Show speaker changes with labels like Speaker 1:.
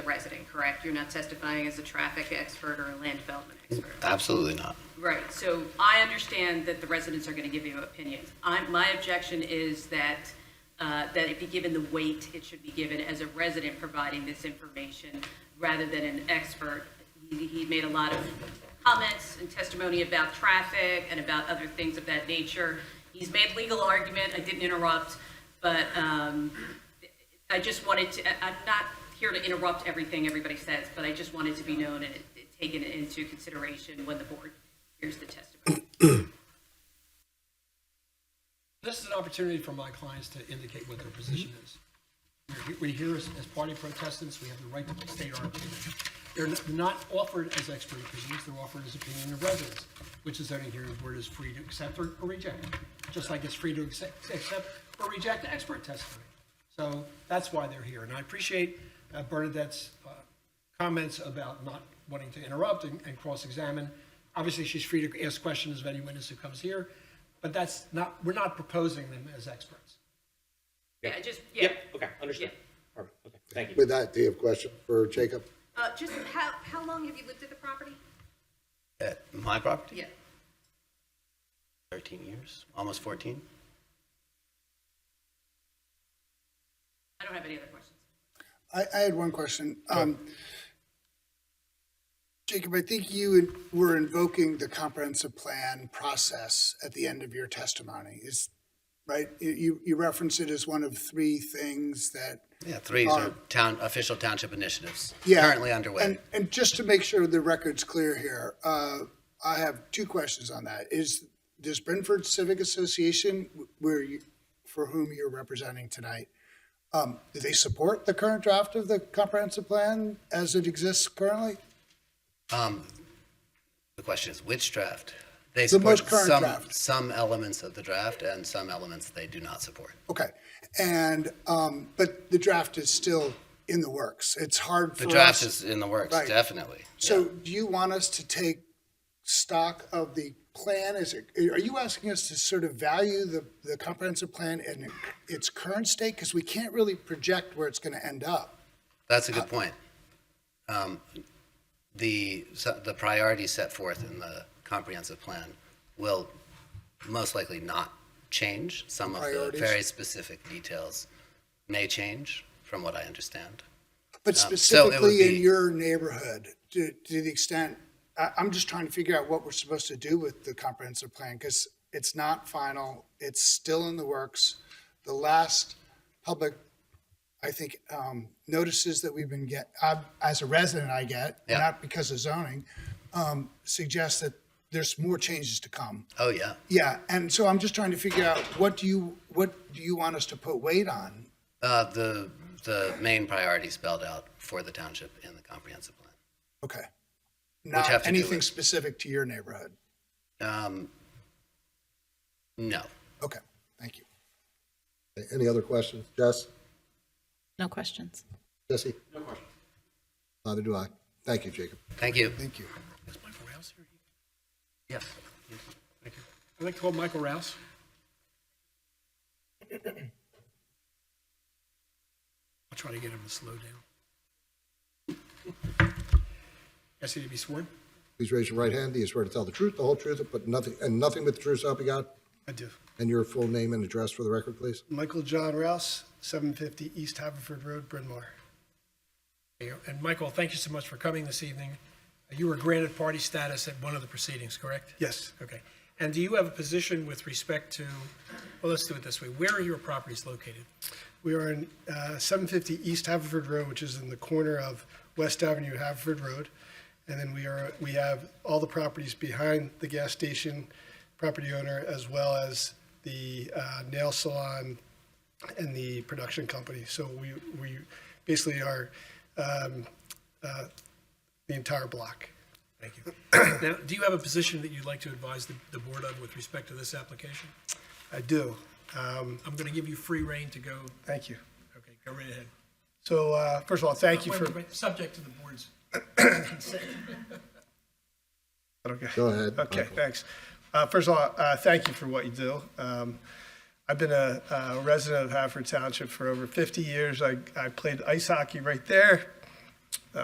Speaker 1: correct? You're not testifying as a traffic expert or a land development expert.
Speaker 2: Absolutely not.
Speaker 1: Right, so I understand that the residents are going to give you opinions. I, my objection is that, uh, that it be given the weight it should be given as a resident providing this information rather than an expert. He, he made a lot of comments and testimony about traffic and about other things of that nature. He's made legal argument, I didn't interrupt, but, um, I just wanted to, I- I'm not here to interrupt everything everybody says, but I just wanted to be known and it- taken into consideration when the board hears the testimony.
Speaker 3: This is an opportunity for my clients to indicate what their position is. We're he- We're here as, as party protestants, we have the right to state our opinion. They're n- not offered as expert opinions, they're offered as opinion of residents, which is only here, where it is free to accept or or reject, just like it's free to accept, accept or reject expert testimony. So that's why they're here, and I appreciate uh, Bernadette's uh, comments about not wanting to interrupt and, and cross-examine. Obviously, she's free to ask questions of any witness who comes here, but that's not, we're not proposing them as experts.
Speaker 1: Yeah, I just, yeah.
Speaker 4: Yep, okay, understood. Perfect, okay, thank you.
Speaker 5: With that, do you have a question for Jacob?
Speaker 1: Uh, Just how, how long have you lived at the property?
Speaker 2: At my property,
Speaker 1: Yeah.
Speaker 2: 13 years, almost 14.
Speaker 1: I don't have any other questions.
Speaker 6: I, I had one question. Um, Jacob, I think you were invoking the comprehensive plan process at the end of your testimony, is, right? You- You, you reference it as one of three things that.
Speaker 2: Yeah, three are town, official township initiatives
Speaker 6: Um, Yeah,
Speaker 2: currently underway.
Speaker 6: And, and just to make sure the record's clear here, uh, I have two questions on that. Is, does Brentford Civic Association, where you, for whom you're representing tonight, um, do they support the current draft of the comprehensive plan as it exists currently?
Speaker 2: Um, The question is which draft? They
Speaker 6: The
Speaker 2: support
Speaker 6: most current
Speaker 2: some,
Speaker 6: draft.
Speaker 2: some elements of the draft and some elements they do not support.
Speaker 6: Okay, and, um, but the draft is still in the works. It's hard for
Speaker 2: The
Speaker 6: us.
Speaker 2: draft is in the works,
Speaker 6: Right.
Speaker 2: definitely.
Speaker 6: So do you want us to take stock of the plan? Is it, are you asking us to sort of value the, the comprehensive plan in its current state? Because we can't really project where it's going to end up.
Speaker 2: That's a good point. Um, The, so- the priorities set forth in the comprehensive plan will most likely not change. Some of the
Speaker 6: Priorities?
Speaker 2: very specific details may change, from what I understand.
Speaker 6: But
Speaker 2: Um, so it would
Speaker 6: specifically
Speaker 2: be-
Speaker 6: in your neighborhood, to, to the extent, I, I'm just trying to figure out what we're supposed to do with the comprehensive plan because it's not final. It's still in the works. The last public, I think, um, notices that we've been get, I- as a resident I get,
Speaker 2: Yeah.
Speaker 6: not because of zoning, um, suggest that there's more changes to come.
Speaker 2: Oh, yeah.
Speaker 6: Yeah, and so I'm just trying to figure out what do you, what do you want us to put weight on?
Speaker 2: Uh, The, the main priority spelled out for the township in the comprehensive plan.
Speaker 6: Okay. Not
Speaker 2: have to do
Speaker 6: anything
Speaker 2: with-
Speaker 6: specific to your neighborhood.
Speaker 2: Um, No.
Speaker 6: Okay, thank you.
Speaker 5: Any other questions? Jess?
Speaker 7: No questions.
Speaker 5: Jesse? No question. Neither do I. Thank you, Jacob.
Speaker 2: Thank you.
Speaker 6: Thank you.
Speaker 3: Is Michael Rouse here?
Speaker 2: Yes.
Speaker 3: I'd like to call Michael Rouse. I'll try to get him to slow down. Yes, he to be sworn?
Speaker 5: Please raise your right hand. Do you swear to tell the truth, the whole truth, but nothing, and nothing but the truth, so help you God?
Speaker 8: I do.
Speaker 5: And your full name and address for the record, please?
Speaker 8: Michael John Rouse, 750 East Haverford Road, Bryn Mawr.
Speaker 3: And Michael, thank you so much for coming this evening. You were granted party status at one of the proceedings, correct?
Speaker 8: Yes.
Speaker 3: Okay. And do you have a position with respect to, well, let's do it this way. Where are your properties located?
Speaker 8: We are in uh, 750 East Haverford Road, which is in the corner of West Avenue, Haverford Road. And then we are, we have all the properties behind the gas station property owner, as well as the uh, nail salon and the production company. So we, we basically are um, uh, the entire block.
Speaker 3: Thank you. Now, do you have a position that you'd like to advise the, the board on with respect to this application?
Speaker 8: I do. Um,
Speaker 3: I'm going to give you free reign to go,
Speaker 8: Thank you.
Speaker 3: okay, go right ahead.
Speaker 8: So uh, first of all, thank you
Speaker 3: Wait,
Speaker 8: for.
Speaker 3: wait, wait, Subject to the board's consent.
Speaker 8: Okay.
Speaker 5: Go ahead,
Speaker 8: Okay,
Speaker 5: Michael.
Speaker 8: thanks. Uh, First of all, uh, thank you for what you do. Um, I've been a a resident of Haverford Township for over 50 years. I I played ice hockey right there,